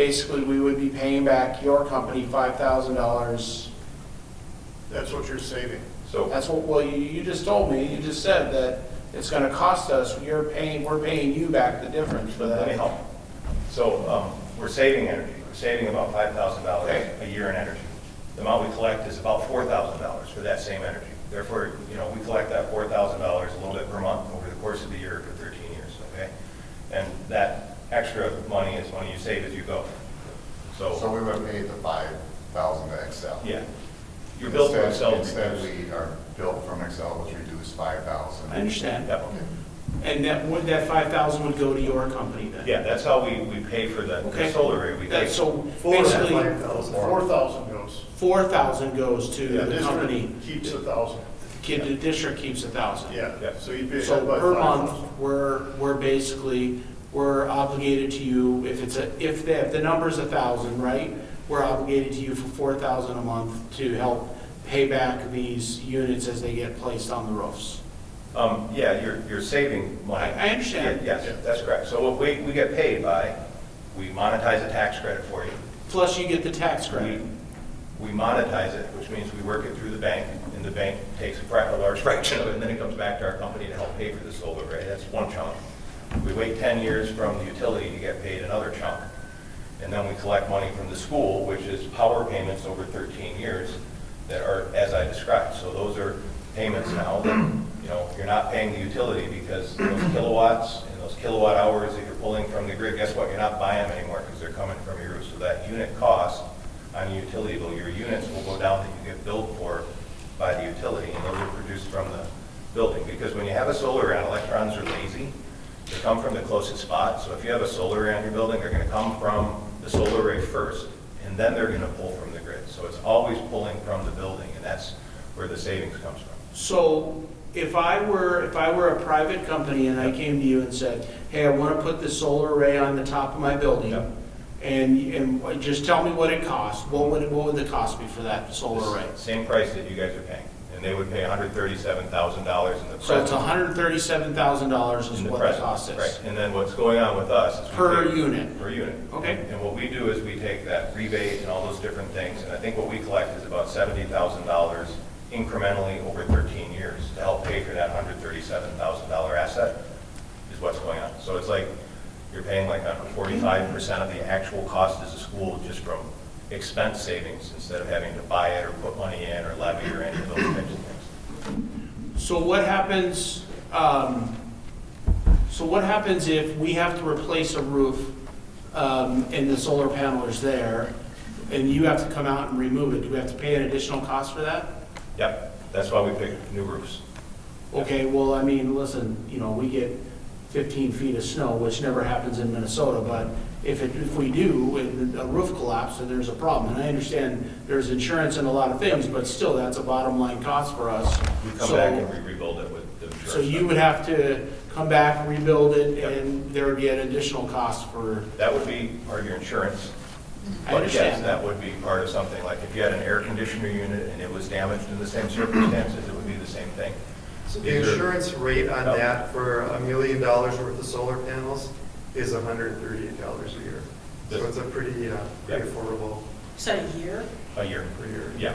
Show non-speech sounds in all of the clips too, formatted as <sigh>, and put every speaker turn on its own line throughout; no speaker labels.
Basically, we would be paying back your company five thousand dollars.
That's what you're saving.
So,
That's what, well, you, you just told me, you just said that it's gonna cost us, you're paying, we're paying you back the difference for
let me
that.
help. So, um, we're saving energy, we're saving about five thousand dollars
Okay.
a year in energy. The amount we collect is about four thousand dollars for that same energy. Therefore, you know, we collect that four thousand dollars a little bit per month over the course of the year for thirteen years, okay? And that extra money is money you save as you go.
So
So,
we would pay the five thousand to Excel.
yeah, your bill for
Instead-
itself.
Instead, we, our bill from Excel was reduced five thousand.
I understand.
Yep.
And that, would, that five thousand would go to your company then?
Yeah, that's how we, we pay for the the
Okay.
solar array. We
That-
pay-
So
Four
basically,
Four thousand goes.
four thousand goes to
Yeah,
the
district
company,
Keeps a thousand,
kid, the district keeps a thousand.
yeah,
Yeah.
so you'd be. ahead
So
by
per
5,000.
month, we're, we're basically, we're obligated to you, if it's a, if the, if the number's a thousand, right? We're obligated to you for four thousand a month to help pay back these units as they get placed on the roofs.
Um, yeah, you're, you're saving money.
I- I understand.
Yeah,
Yeah.
Yes, that's correct. So what we, we get paid by, we monetize a tax credit for you.
Plus you get the tax credit.
We, we monetize it, which means we work it through the bank, and the bank takes a fra- a large <laughs> fraction of it, and then it comes back to our company to help pay for the solar array. That's one chunk. We wait 10 years from the utility to get paid another chunk. And then we collect money from the school, which is power payments over 13 years that are as I described. So those are payments now that, you know, you're not paying the utility because those kilowatts and those kilowatt hours that you're pulling from the grid, guess what? You're not buying them anymore because they're coming from your roof. So that unit cost on your utility bill, your units will go down that you get billed for by the utility, and those are produced from the building. Because when you have a solar array, electrons are lazy, they come from the closest spot. So if you have a solar array on your building, they're gonna come from the solar array first, and then they're gonna pull from the grid. So it's always pulling from the building, and that's where the savings comes from.
So if I were, if I were a private company and I came to you and said, hey, I want to put this solar array on the top of my building,
Yep.
and, and just tell me what it costs, what would, it- what would the cost be for that solar array?
Same price that you guys are paying, and they would pay hundred thirty-seven thousand dollars in the present.
So it's hundred and thirty-seven thousand dollars is
in
what the
present,
cost
Right,
is.
and then what's going on with us is. we
Per
take-
unit.
Per unit.
Okay.
And what we do is we take that rebate and all those different things, and I think what we collect is about seventy thousand dollars incrementally over thirteen years to help pay for that hundred thirty-seven thousand dollar asset is what's going on. So it's like, you're paying like forty-five percent of the actual cost as a school just from expense savings instead of having to buy it or put money in or levy or any of those types of things.
So what happens, um, so what happens if we have to replace a roof, um, and the solar panel is there, and you have to come out and remove it? Do we have to pay an additional cost for that?
Yep, that's why we pick new roofs.
Okay, well, I mean, listen, you know, we get 15 feet of snow, which never happens in Minnesota, but if it, if we do, and a roof collapse, then there's a problem. And I understand there's insurance and a lot of things, but still, that's a bottom line cost for us.
We come
So-
back and we rebuild it with the insurance.
So you would have to come back, rebuild it,
Yep.
and there would be an additional cost for,
That would be part of your insurance.
I
But yes,
understand that.
that would be part of something, like if you had an air conditioner unit and it was damaged in the same circumstances, it would be the same thing.
So the
These are-
insurance rate on
Oh.
that for a million dollars worth of solar panels is hundred and thirty-eight dollars a year. So
Yes.
it's a pretty, uh, pretty
Yeah.
affordable
Is that a year?
A year.
per year.
Yeah.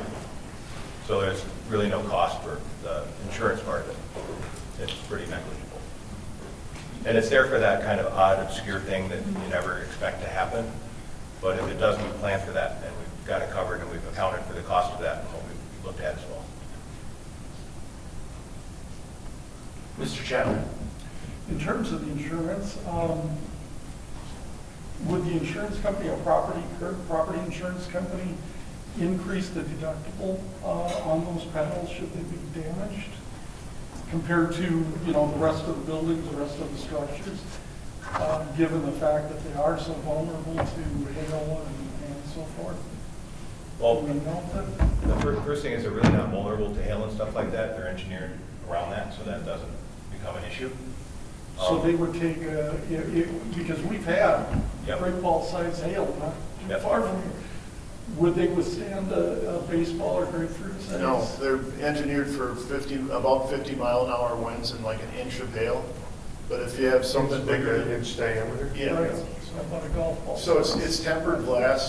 So there's really no cost for the insurance part of it. It's pretty negligible. And it's there for that kind of odd obscure thing that you never expect to happen. But if it doesn't, we plan for that, and we've got it covered, and we've accounted for the cost of that, and what we've looked at as well.
Mr. Chadwick?
In terms of the insurance, um, would the insurance company, a property, current property insurance company, increase the deductible uh, on those panels should they be damaged compared to, you know, the rest of the buildings, the rest of the structures, uh, given the fact that they are so vulnerable to hail and and so forth?
Well,
Do we know that?
The fir- first thing is they're really not vulnerable to hail and stuff like that. They're engineered around that, so that doesn't become an issue.
So
Um,
they would take, uh, i- i- because we've had
Yep.
great ball size hail, not too
Yep.
far from here. Would they withstand a a baseball or grapefruit size?
No, they're engineered for 50, about 50 mile an hour winds and like an inch of hail. But if you have something
Something bigger
bigger,
than inch diameter.
yeah,
Right. How about a golf ball?
So it's, it's tempered glass,